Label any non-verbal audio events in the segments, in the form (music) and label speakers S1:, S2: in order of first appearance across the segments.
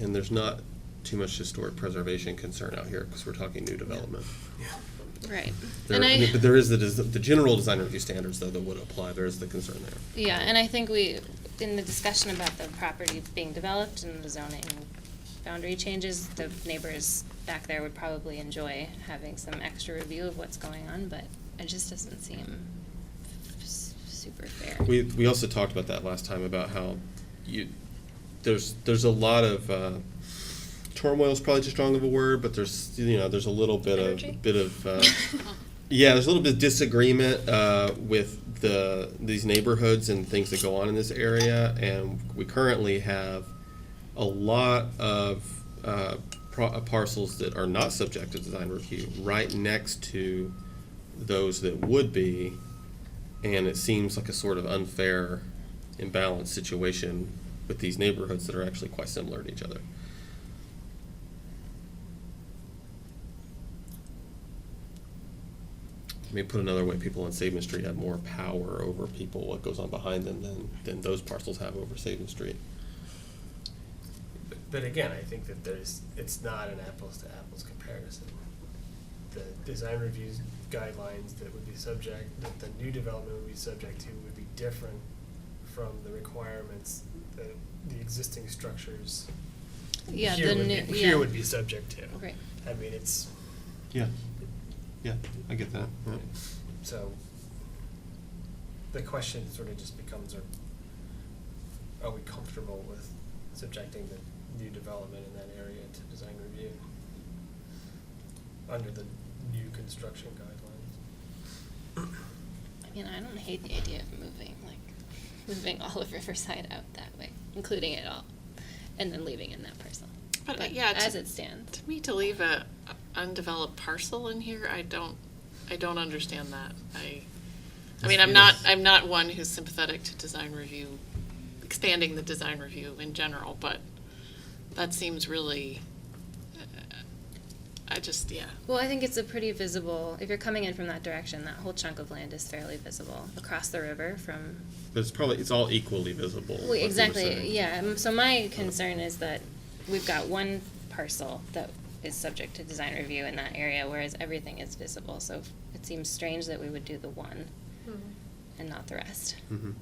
S1: and there's not too much historic preservation concern out here, because we're talking new development.
S2: Right.
S1: There,
S2: and I,
S1: but there is the, des- the general design review standards, though, that would apply, there is the concern there.
S2: yeah, and I think we, in the discussion about the property being developed and the zoning boundary changes, the neighbors back there would probably enjoy having some extra review of what's going on, but it just doesn't seem s- super fair.
S1: We, we also talked about that last time about how you, there's, there's a lot of, uh, turmoil is probably too strong of a word, but there's, you know, there's a little bit
S2: Energy?
S1: of, bit of, uh, yeah, there's a little bit of disagreement, uh, with the, these neighborhoods and things that go on in this area. And we currently have a lot of, uh, pro- parcels that are not subject to design review right next to those that would be and it seems like a sort of unfair, imbalanced situation with these neighborhoods that are actually quite similar to each other. I mean, put another way, people on Saban Street have more power over people, what goes on behind them, than, than those parcels have over Saban Street.
S3: But- But again, I think that there's, it's not an apples to apples comparison. The design reviews guidelines that would be subject, that the new development would be subject to would be different from the requirements that the existing structures
S2: Yeah,
S3: here
S2: the
S3: would be,
S2: new,
S3: here
S2: yeah.
S3: would be subject to.
S2: Right.
S3: I mean, it's,
S1: Yeah, yeah, I get that.
S3: so, the question sort of just becomes, are, are we comfortable with subjecting the new development in that area to design review? Under the new construction guidelines?
S2: I mean, I don't hate the idea of moving, like, moving all of Riverside out that way, including it all, and then leaving in that parcel.
S4: But, uh, yeah, to-
S2: As it stands.
S4: To me, to leave a a undeveloped parcel in here, I don't, I don't understand that. I, I mean, I'm not, I'm not one who's sympathetic to design review, expanding the design review in general, but that seems really, uh, I just, yeah.
S2: Well, I think it's a pretty visible, if you're coming in from that direction, that whole chunk of land is fairly visible across the river from,
S1: But it's probably, it's all equally visible.
S2: Well,
S1: like you were
S2: exactly,
S1: saying.
S2: yeah. um, So my concern is that we've got one parcel that is subject to design review in that area, whereas everything is visible. So it seems strange that we would do the one
S5: Mm-hmm.
S2: and not the rest.
S1: Mhm.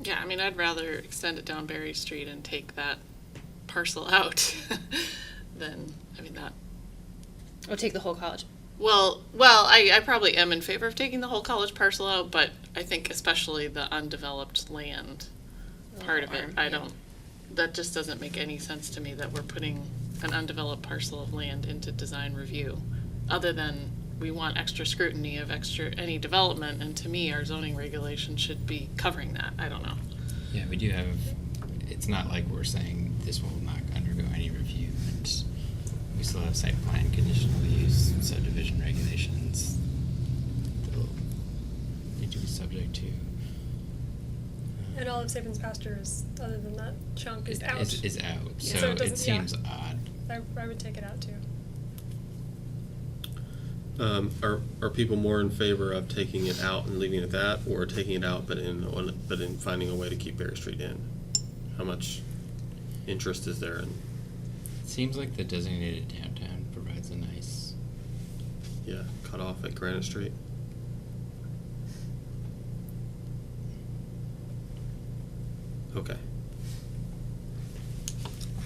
S4: Yeah, I mean, I'd rather extend it down Berry Street and take that parcel (laughs) out than, I mean, that,
S2: Or take the whole college.
S4: Well, well, I, I probably am in favor of taking the whole college parcel out, but I think especially the undeveloped land part of it,
S2: Arm,
S4: I
S2: yeah.
S4: don't, that just doesn't make any sense to me that we're putting an undeveloped parcel of land into design review, other than we want extra scrutiny of extra, any development, and to me, our zoning regulation should be covering that, I don't know.
S6: Yeah, we do have, it's not like we're saying this will not undergo any review, and we still have site plan, conditional use, subdivision regulations that will need to be subject to. uh,
S5: And all of Sabin's pasture is, other than that chunk, is out.
S6: Is, is out,
S5: Yeah.
S6: so
S5: So it
S6: it
S5: doesn't- yeah.
S6: seems odd.
S5: I, I would take it out too.
S1: Um, are, are people more in favor of taking it out and leaving it at that, or taking it out but in on, but in finding a way to keep Berry Street in? How much interest is there in?
S6: It Seems like the designated downtown provides a nice,
S1: Yeah, cut off at Granite Street. Okay.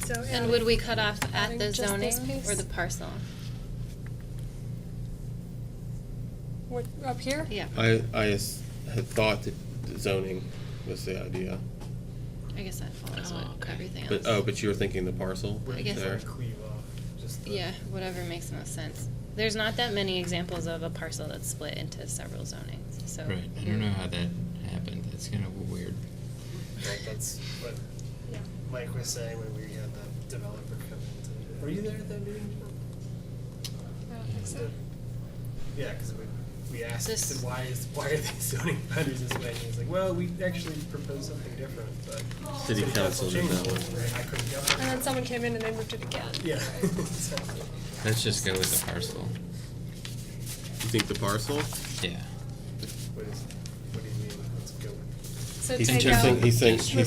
S5: So.
S2: And would we cut off at
S5: adding
S2: the
S5: just
S2: zoning
S5: this
S2: or
S5: piece?
S2: the parcel?
S5: What, up here?
S2: Yeah,
S1: I, I s- had thought that zoning was the idea,
S2: I guess that follows
S4: Oh,
S2: what
S4: okay.
S2: everything else.
S1: but, oh, but you were thinking the parcel
S2: I
S3: Would
S2: guess-
S1: there?
S3: we cleave off just the.
S2: Yeah, whatever makes most sense. There's not that many examples of a parcel that's split into several zonings, so.
S6: right, I don't know how that happened, that's kind of weird.
S3: Like, that's what
S5: Yeah.
S3: Mike was saying when we had the developer come in to, were you there at that meeting?
S5: I don't think so.
S3: Yeah, cause we, we asked,
S2: This-
S3: said, why is, why are these (laughs) zoning boundaries this way? And he's like, well, we actually proposed something different, but.
S1: City council did
S3: changed
S1: that
S3: it,
S1: one.
S3: right? I couldn't go.
S5: And then someone came in and they moved it again.
S3: (laughs)
S5: (laughs)
S3: Yeah. (laughs) So,
S6: Let's just go with the parcel,
S1: You think the parcel?
S6: yeah.
S3: What is, what do you mean, let's go with?
S5: So
S1: He's
S5: take
S1: just
S5: out.
S1: saying- he's saying-
S5: Move
S1: he's